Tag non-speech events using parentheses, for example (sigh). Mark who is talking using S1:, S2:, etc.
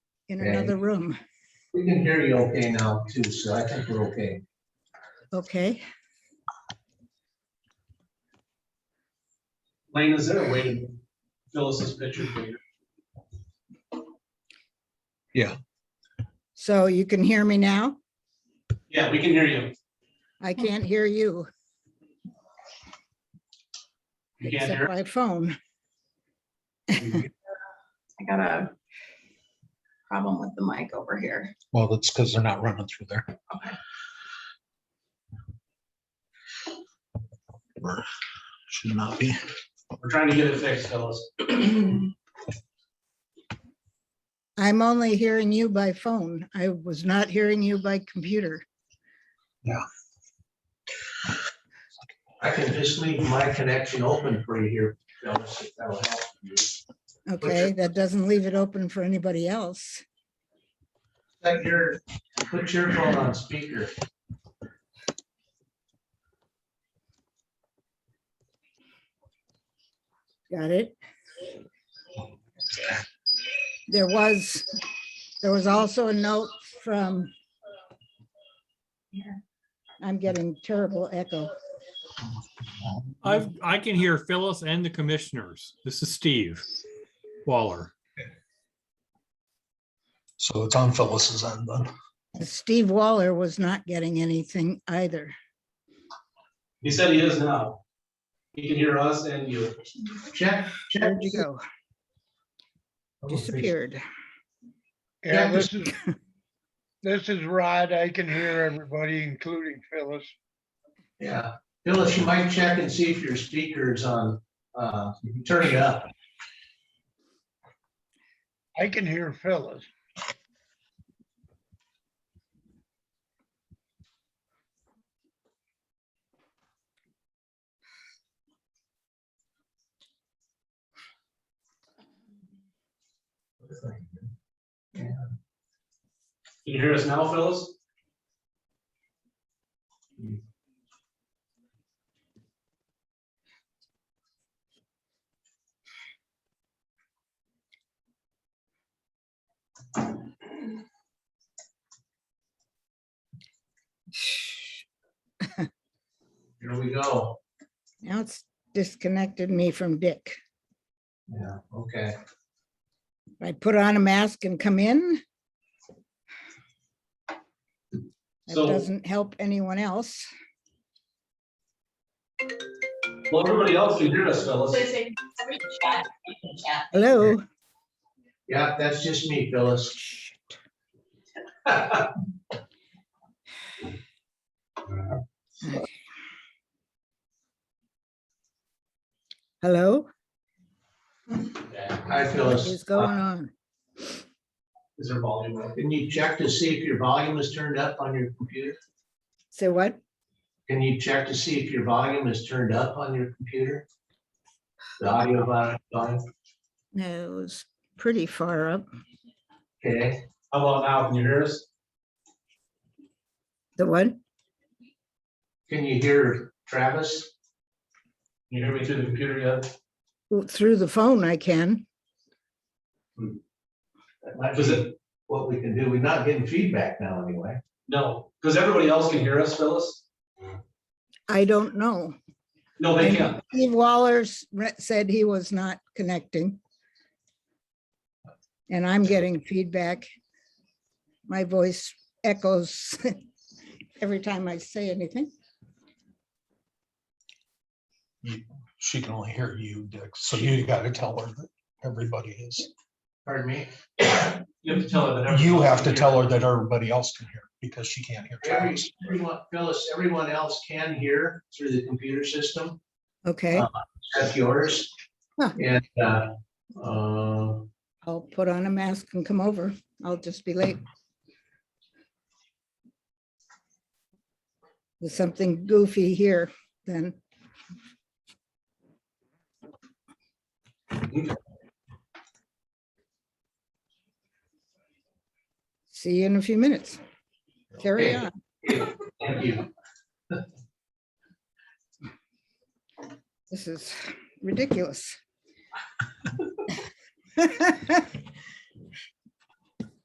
S1: in
S2: Okay.
S1: another room,
S2: We can hear you okay now too, so I think we're okay.
S1: okay?
S3: Lane, is there a way to fill us this picture for you?
S1: So you can hear me now?
S3: Yeah, we can hear you.
S1: I can't hear you
S3: You can't
S1: except
S3: hear?
S1: by phone.
S4: I got a problem with the mic over here.
S5: Well, that's because they're not running through there. Or Should not be.
S3: We're trying to get it fixed, fellas.
S1: I'm only hearing you by phone. I was not hearing you by computer.
S2: I can just leave my connection open for you here. fellas, if that'll help you. Is
S1: Okay, that doesn't leave it open for anybody else.
S2: That your, put your phone on speaker.
S1: Got it? There was, there was also a note from. I'm getting terrible echo.
S6: I've, I can hear Phyllis and the commissioners. This is Steve Waller.
S5: So it's on Phyllis's end then.
S1: Steve Waller was not getting anything either.
S3: He said he is now. He can hear us and you.
S2: Check, check.
S1: Where'd you go? Disappeared.
S7: Yeah,
S2: Yeah,
S7: this is, this is Rod. I can hear everybody, including Phyllis.
S2: Yeah, Phyllis, you might check and see if your speaker is on, uh, turn it up.
S7: I can hear Phyllis.
S3: Can you hear us now, Phyllis?
S2: Here we go.
S1: Now it's disconnected me from Dick.
S2: Yeah, okay.
S1: I put on a mask and come in. That
S3: So-
S1: doesn't help anyone else.
S3: Well, everybody else can hear us, Phyllis.
S1: Hello?
S2: Yeah, that's just me, Phyllis.
S3: (laughs)
S1: Hello?
S2: Hi,
S1: What
S2: Phyllis.
S1: is going on?
S3: Is there volume? up?
S2: Can you check to see if your volume is turned up on your computer?
S1: Say what?
S2: Can you check to see if your volume is turned up on your computer? The audio vol- volume,
S1: No, it was pretty far up.
S2: okay,
S3: How about now? Can you hear us?
S1: The what?
S2: can you hear Travis?
S3: Can you hear me through the computer yet?
S1: Oh, Through the phone I can.
S2: That might
S3: Does
S2: be
S3: it?
S2: what we can do, we're not getting feedback now anyway.
S3: No, because everybody else can hear us, Phyllis.
S1: I don't know.
S3: No, they can't.
S1: Steve Waller's re- said he was not connecting. And I'm getting feedback. My voice echoes (laughs) every time I say anything.
S5: She can only hear you, Dick. So you gotta tell her that everybody is.
S2: Pardon me,
S3: You have to tell her that. everybody
S5: You
S3: else
S5: have
S3: can
S5: to
S3: hear
S5: tell
S3: us.
S5: her that everybody else can hear because she can't hear
S2: Every-
S5: Travis.
S2: everyone, Phyllis, everyone else can hear through the computer system,
S1: Okay,
S2: except yours.
S1: Huh.
S2: And, uh, uh,
S1: I'll put on a mask and come over. I'll just be late. There's something goofy here then. See you in a few minutes. Carry
S2: Okay.
S1: on.
S2: thank you.
S1: This is ridiculous.